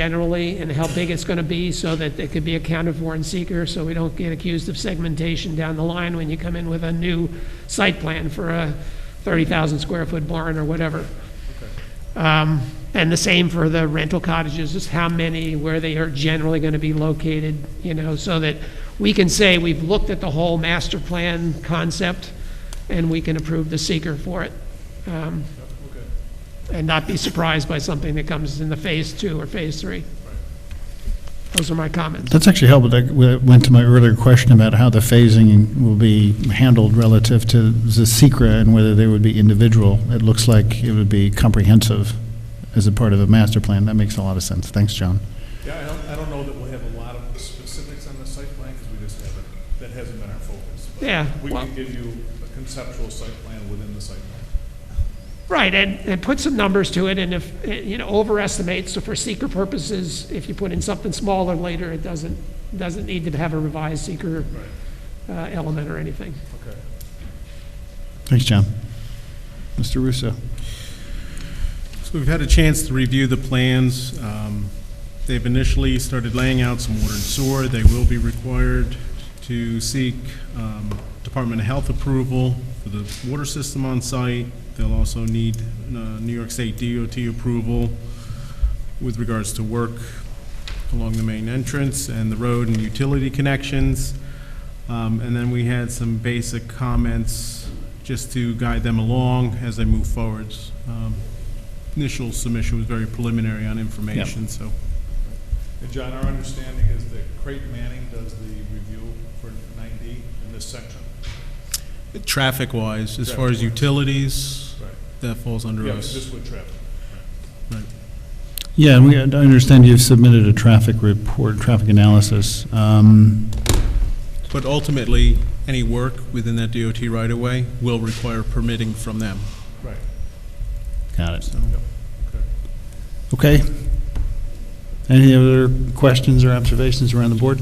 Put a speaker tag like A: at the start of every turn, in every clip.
A: generally and how big it's going to be so that it could be accounted for in seeker, so we don't get accused of segmentation down the line when you come in with a new site plan for a 30,000 square foot barn or whatever. Um, And the same for the rental cottages, just how many, where they are generally going to be located, you know, so that we can say we've looked at the whole master plan concept and we can approve the seeker for it. Um, And not be surprised by something that comes in the phase two or phase three. Those are my comments.
B: That's actually helpful. That w- went to my earlier question about how the phasing will be handled relative to the secra and whether they would be individual. It looks like it would be comprehensive as a part of a master plan. That makes a lot of sense. Thanks, John.
C: Yeah, I don't, I don't know that we'll have a lot of specifics on the site plan, because we just haven't, that hasn't been our focus. But
A: Yeah,
C: We
A: well-
C: can give you a conceptual site plan within the site plan.
A: Right, and, and put some numbers to it, and if, eh, you know, overestimate, so for seeker purposes, if you put in something smaller later, it doesn't, doesn't need to have a revised seeker uh, element or anything.
C: Okay.
B: Thanks, John. Mr. Russo?
D: So we've had a chance to review the plans. Um, They've initially started laying out some water and sewer. They will be required to seek um, Department of Health approval for the water system on site. They'll also need uh, New York State DOT approval with regards to work along the main entrance and the road and utility connections. Um, And then we had some basic comments just to guide them along as they move forwards. Um, Initial submission was very preliminary on information, so.
C: And John, our understanding is that Creighton Manning does the review for 9D in this section.
D: Traffic-wise, as far as utilities,
C: Right.
D: that falls under
C: Yeah, this
D: us.
C: would traffic.
D: Right.
B: Yeah, and we, I understand you've submitted a traffic report, traffic analysis. Um,
D: But ultimately, any work within that DOT right-of-way will require permitting from them,
C: Right.
B: Got it.
D: so.
C: Okay.
B: Okay. Any other questions or observations around the board?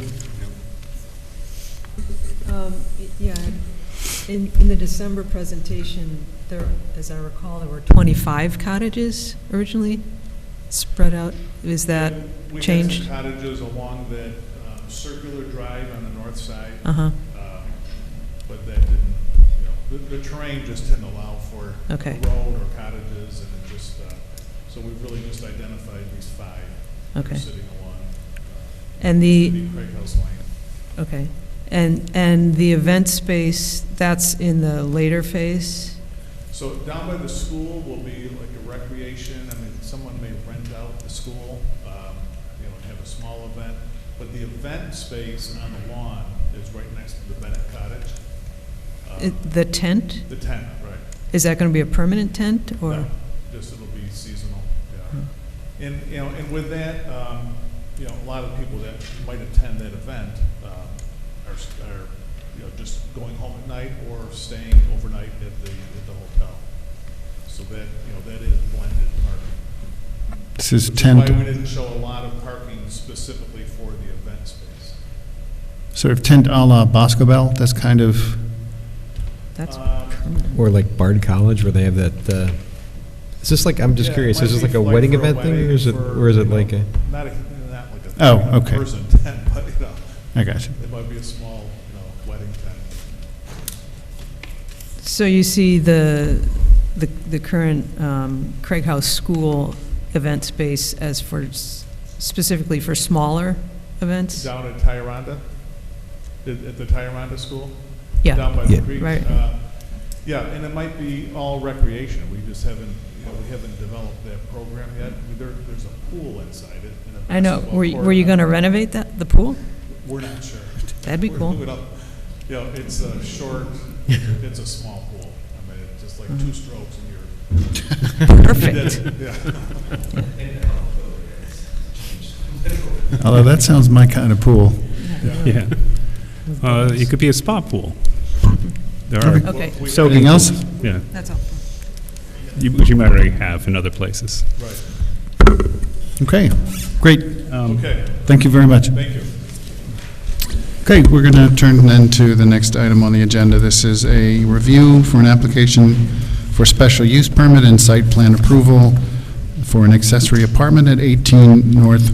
E: Um, y- Yeah, in, in the December presentation, there, as I recall, there were 25 cottages originally spread out. Is that,
C: We had some
E: changed?
C: cottages along that um, circular drive on the north side,
E: uh-huh,
C: um, but that didn't, you know, the, the terrain just didn't allow for
E: Okay.
C: a road or cottages, and it just, uh, so we've really just identified these five that are
E: Okay.
C: sitting along uh,
E: and the,
C: the Craig House Lane.
E: okay. And, and the event space, that's in the later phase?
C: So down by the school will be like a recreation, I mean, someone may rent out the school, um, you know, and have a small event, but the event space on the lawn is right next to the Bennett Cottage.
E: I-
C: Um,
E: The tent?
C: The tent, right.
E: Is that going to be a permanent tent, or?
C: No, Just it'll be seasonal,
B: Hmm.
C: yeah. And, you know, and with that, um, you know, a lot of people that might attend that event, um, are, s- are, you know, just going home at night or staying overnight at the, at the hotel. So that, you know, that is blended parking.
B: This is
C: Why we
B: tent,
C: didn't show a lot of parking specifically for the event space.
B: sort of tent à la Bosco Bell, that's kind of,
E: That's
C: Um,
E: permanent.
F: Or like Bard College, where they have that, uh, is this like, I'm just
C: yeah, it
F: curious,
C: might
F: is this
C: be
F: like a wedding
C: for a
F: event thing, or
C: wedding,
F: is it,
C: for,
F: or is
C: you
F: it
C: know,
F: like a?
C: Not, a- not like a.
B: Oh, okay.
C: Person tent, but, you know.
B: I got you.
C: It might be a small, you know, wedding tent.
E: So you see the, the, the current um, Craig House School event space as for, s- specifically for smaller events?
C: Down at Tyranda, at at the Tyranda School? Down
E: Yeah,
C: by the
F: Yeah.
C: creek?
E: Right.
C: Uh, Yeah, and it might be all recreation. We just haven't, you know, we haven't developed that program yet. I mean, There, there's a pool inside it and a
E: I know.
C: basketball
E: Were, you-
C: court.
E: were you going to renovate that, the pool?
C: We're not sure.
E: That'd be
C: We're
E: cool.
C: moving up. You know, it's a short, it's a small pool. I mean, it's just like
E: Mm-hmm.
C: two strokes and you're, that's,
E: Perfect.
C: yeah.
B: although that sounds my kind of pool.
G: Yeah. Uh, It could be a spa pool. There
B: Okay.
G: are,
E: Okay,
B: So anything else?
G: yeah,
E: that's all.
G: you- which you might already have in other places.
C: Right.
B: Okay, great.
C: Okay,
B: Thank you very much.
C: thank you.
B: Okay, we're going to turn then to the next item on the agenda. This is a review for an application for special use permit and site plan approval for an accessory apartment at 18 North